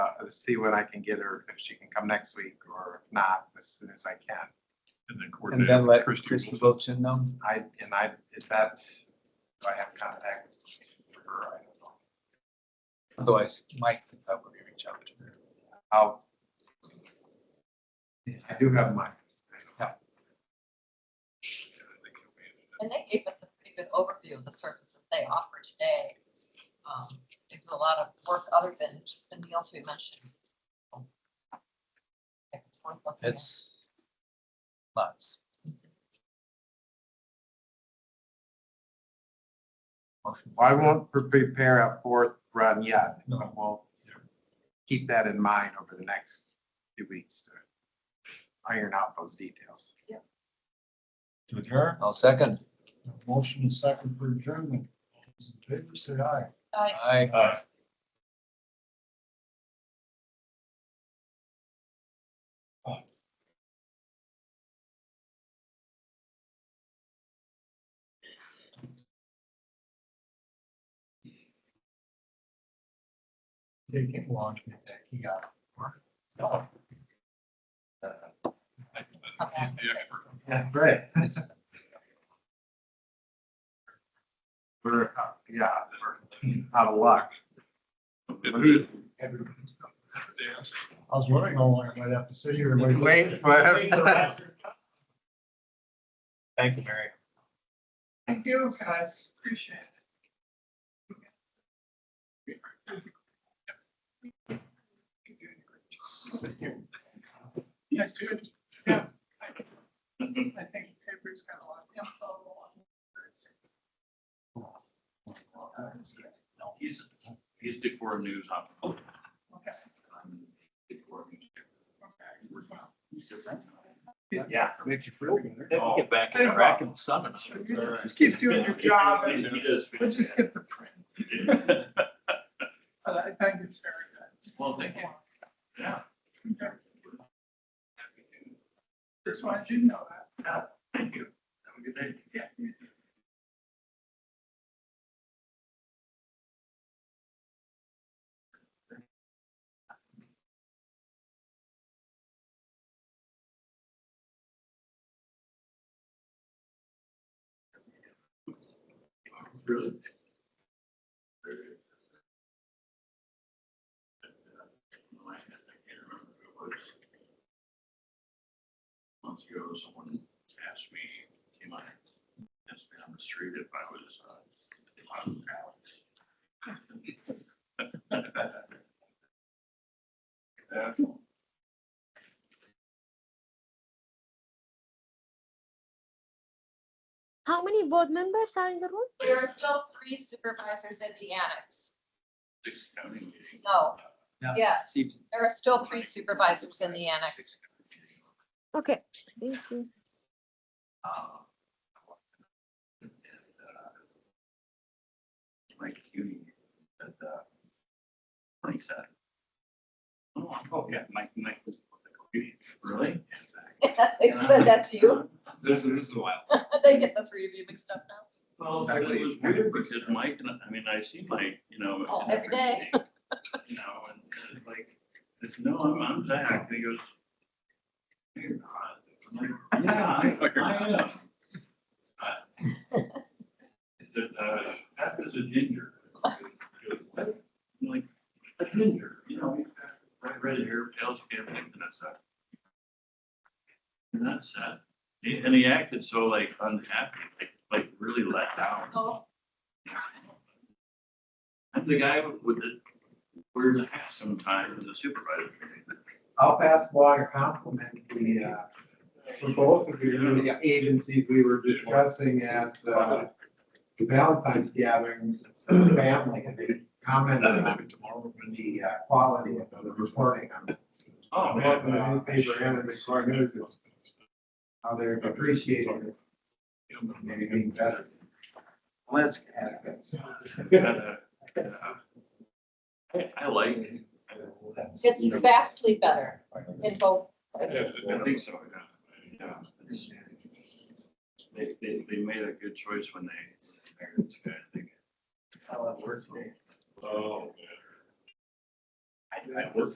to uh, see what I can get her, if she can come next week, or if not, as soon as I can. And then And coordinate then with let Christie Christie Wilson. Wilson know. I, and I, is that, do I have contact for her? I don't know. Otherwise, Mike can probably reach out to her. I'll. I do have mine. And they gave us a pretty good overview of the services they offer today. Um, They do a lot of work other than just the meals we mentioned. Like, it's worth looking at. It's lots. Motion. Well, I won't pre- prepare a fourth run yet, No. but we'll keep that in mind over the next few weeks to iron out those details. To adjourn, I'll second. motion and second for adjournment. All those in favor, say aye. I- Aye. Aye. Take it long to get that key out. No. The expert. Yeah, right. We're, uh, yeah, we're out of luck. I was wondering how long I might have to sit here and wait. Wait, but- Thank you, Mary. Thank you, guys. Appreciate it. Yes, dude. Yeah. I think the paper's got a lot of info on it. He's, he's Decorah News. op- Okay, I'm Decorah News. Oh. Yeah. Makes you feel better. They can get back in track and summon. okay. Just keep doing your job and He does. let's just get the print. fantastic. But I think it's very good. Well, thank you. Yeah. Okay. Just wanted you to know that. Thank you. Have a good day. Yeah. Really? I can't remember who it was. Months ago, someone asked me, came on, asked me on the street if I was, uh, if I was Alex. Yeah. How many board members are in the room? There are still three supervisors in the annex. Six county meeting. No. Yeah. Yes, there are still three supervisors in the annex. Okay, thank you. Uh, and, uh, Mike Cuny said, uh, Mike said. Oh, oh, yeah, Mike, Mike was. Really? They said that to you. This is, this is wild. They get the three of you mixed up now. Well, it was weird because Mike, and I I mean, I see Mike, you know. Oh, in every day. everything, You know, and it's like, it's, no, I'm, I'm Zach, and he goes. "No, you're not." I'm like, Yeah, I, I am. Uh, the, uh, Pat is a ginger. I'm like, a ginger, you know, he's got bright red hair, pale skin, and that's that. And that's that. He- And he acted so like unhappy, like, like really let down. Oh. I'm the guy with the weird hat sometimes, the supervisor. I'll pass along a compliment to the, uh, for both of you, the agencies we were discussing at, uh, the Valentine's gathering, family, and they commented on the uh, quality of the reporting on Oh, both the man. newspaper and the news, how they're appreciating it, maybe being better. Let's. I, I like. it. You know, It's vastly better in both. I think so, yeah. yeah. it's- They, they, they made a good choice when they hired this guy, I think. How it works. Oh, man. I was